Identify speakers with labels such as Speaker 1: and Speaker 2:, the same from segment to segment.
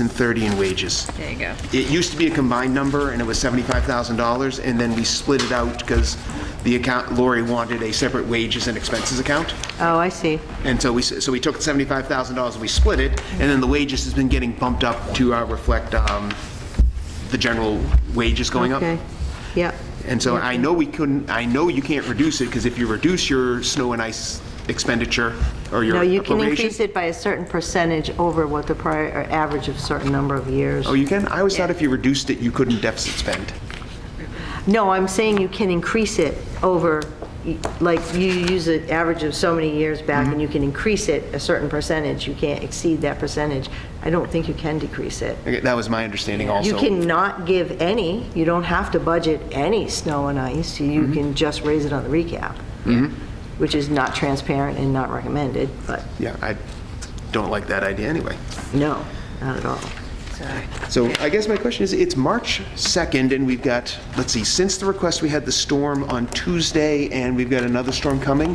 Speaker 1: and 30 in wages.
Speaker 2: There you go.
Speaker 1: It used to be a combined number, and it was $75,000, and then we split it out because the account, Lori wanted a separate wages and expenses account.
Speaker 3: Oh, I see.
Speaker 1: And so we, s- so we took $75,000 and we split it, and then the wages has been getting bumped up to uh, reflect um, the general wages going up.
Speaker 3: Okay, yep.
Speaker 1: And so I know we couldn't, I know you can't reduce it, because if you reduce your snow and ice expenditure, or your
Speaker 3: No, you can
Speaker 1: appropriation.
Speaker 3: increase it by a certain percentage over what the prior, or average of certain number of years.
Speaker 1: Oh, you can? I always thought if you reduced it, you couldn't deficit spend.
Speaker 3: No, I'm saying you can increase it over, like, you use an average of so many years
Speaker 1: Mm-hmm.
Speaker 3: back, and you can increase it a certain percentage, you can't exceed that percentage. I don't think you can decrease it.
Speaker 1: Okay, That was my understanding also.
Speaker 3: You cannot give any, you don't have to budget any snow and ice,
Speaker 1: Mm-hmm.
Speaker 3: you can just raise it on the recap, which is not transparent and not recommended, but
Speaker 1: Yeah, I don't like that idea anyway.
Speaker 3: no, not at all.
Speaker 1: So I guess my question is, it's March 2nd, and we've got, let's see, since the request, we had the storm on Tuesday, and we've got another storm coming,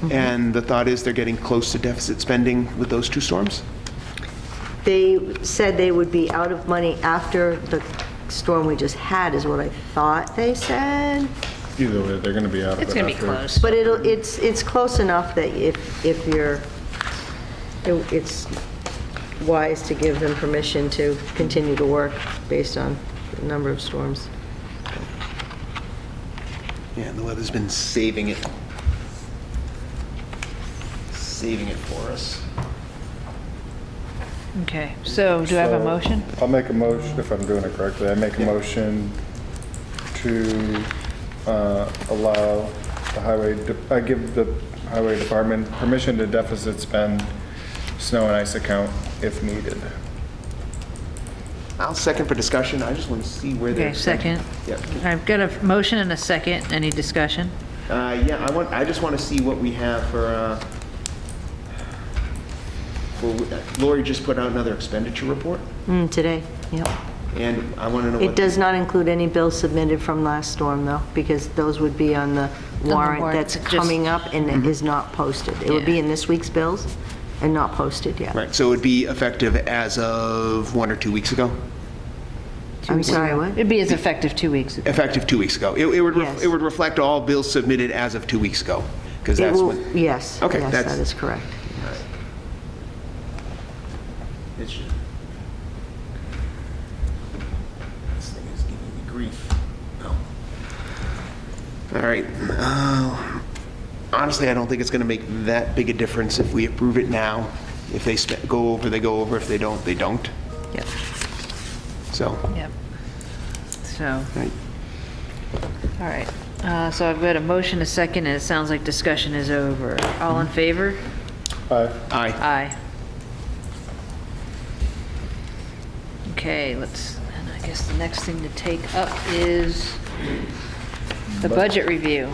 Speaker 2: Mm-hmm.
Speaker 1: and the thought is they're getting close to deficit spending with those two storms?
Speaker 3: They said they would be out of money after the storm we just had, is what I thought they said.
Speaker 4: Either way, they're going to be out of it.
Speaker 2: It's going to be
Speaker 4: after.
Speaker 2: close.
Speaker 3: But it'll, it's, it's close enough that if, if you're, it- it's wise to give them permission to continue to work based on the number of storms.
Speaker 1: Yeah, and the weather's been saving it. Saving it for us.
Speaker 2: Okay, so do I have a
Speaker 4: So,
Speaker 2: motion?
Speaker 4: I'll make a motion, if I'm doing it correctly, I make a motion to uh, allow the highway, de- I give the highway department permission to deficit spend snow and ice account if needed.
Speaker 1: I'll second for discussion, I just want to see where they're...
Speaker 2: Okay, second.
Speaker 1: Yep.
Speaker 2: I've got a motion and a second. Any discussion?
Speaker 1: Uh, yeah, I want, I just want to see what we have for, uh, for, Lori just put out another expenditure report,
Speaker 3: Mm, Today, yep.
Speaker 1: and I want to know what...
Speaker 3: It does not include any bills submitted from last storm, though, because those would be on the warrant
Speaker 2: warrant,
Speaker 3: that's
Speaker 2: just-
Speaker 3: coming up and it is not posted. It would be
Speaker 2: Yeah.
Speaker 3: in this week's bills and not posted yet.
Speaker 1: Right, so it would be effective as of one or two weeks ago?
Speaker 3: I'm sorry, what?
Speaker 2: It'd be as effective two weeks ago.
Speaker 1: Effective two weeks ago. It it would, ref-
Speaker 3: Yes.
Speaker 1: it would reflect all bills submitted as of two weeks ago, because
Speaker 3: It
Speaker 1: that's
Speaker 3: will-
Speaker 1: when...
Speaker 3: Yes,
Speaker 1: Okay,
Speaker 3: yes,
Speaker 1: that's-
Speaker 3: that is correct.
Speaker 1: It should- This thing is giving me grief. No. All right. uh, Honestly, I don't think it's going to make that big a difference if we approve it now. If they spe- go over, they go over. If they don't, they don't.
Speaker 2: Yep,
Speaker 1: So, all
Speaker 2: yep. So,
Speaker 1: right.
Speaker 2: all right. Uh, So I've got a motion, a second, and it sounds like discussion is over. All in favor?
Speaker 4: Aye.
Speaker 1: Aye.
Speaker 2: Aye. Okay, let's, and I guess the next thing to take up is the budget review.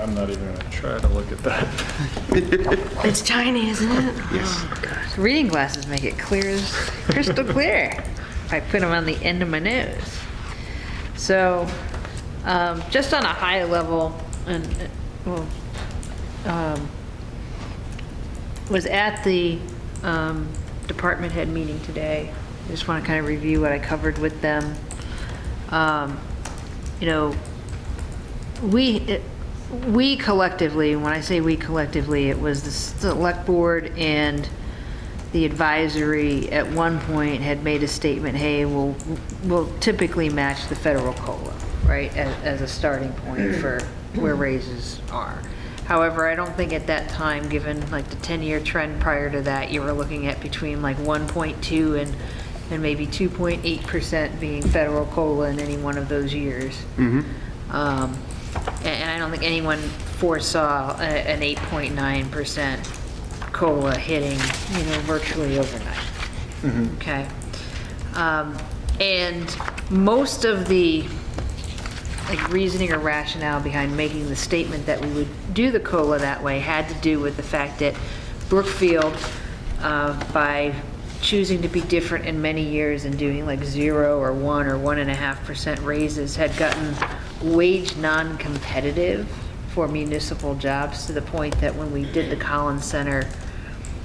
Speaker 4: I'm not even going to try to look at that.
Speaker 3: It's tiny, isn't it?
Speaker 1: Yes.
Speaker 2: Reading glasses make it clear as crystal clear. I put them on the end of my nose. So, um, just on a high level, and, uh, well, um, was at the um, department head meeting today. I Just want to kind of review what I covered with them. Um, You know, we, it- we collectively, when I say we collectively, it was the select board and the advisory at one point had made a statement, hey, we'll, we'll typically match the federal COLA, right, as, as a starting point for where raises are. However, I don't think at that time, given like the 10-year trend prior to that, you were looking at between like 1.2 and, and maybe 2.8% being federal COLA in any one of those years. Um, a- And I don't think anyone foresaw a- an 8.9% COLA hitting, you know, virtually overnight. Okay? Um, And most of the, like, reasoning or rationale behind making the statement that we would do the COLA that way had to do with the fact that Brookfield, uh, by choosing to be different in many years and doing like zero or one or one and a half percent raises had gotten wage non-competitive for municipal jobs to the point that when we did the Collins Center